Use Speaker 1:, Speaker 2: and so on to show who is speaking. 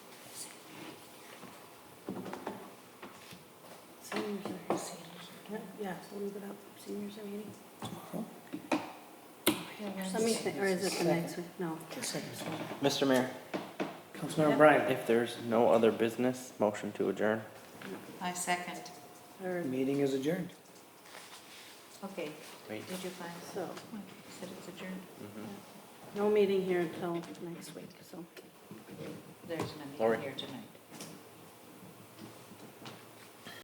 Speaker 1: Seniors are here. Yeah, so leave it up, seniors are meeting. Let me think, or is it the next week? No.
Speaker 2: Mr. Mayor,
Speaker 3: Councilmember Bryan,
Speaker 2: if there's no other business, motion to adjourn.
Speaker 4: I second.
Speaker 1: Or,
Speaker 3: meeting is adjourned.
Speaker 4: Okay,
Speaker 2: Wait.
Speaker 4: did you find,
Speaker 1: so,
Speaker 4: said it's adjourned?
Speaker 1: no meeting here until next week, so.
Speaker 4: There's no
Speaker 2: Lori.
Speaker 4: meeting here tonight.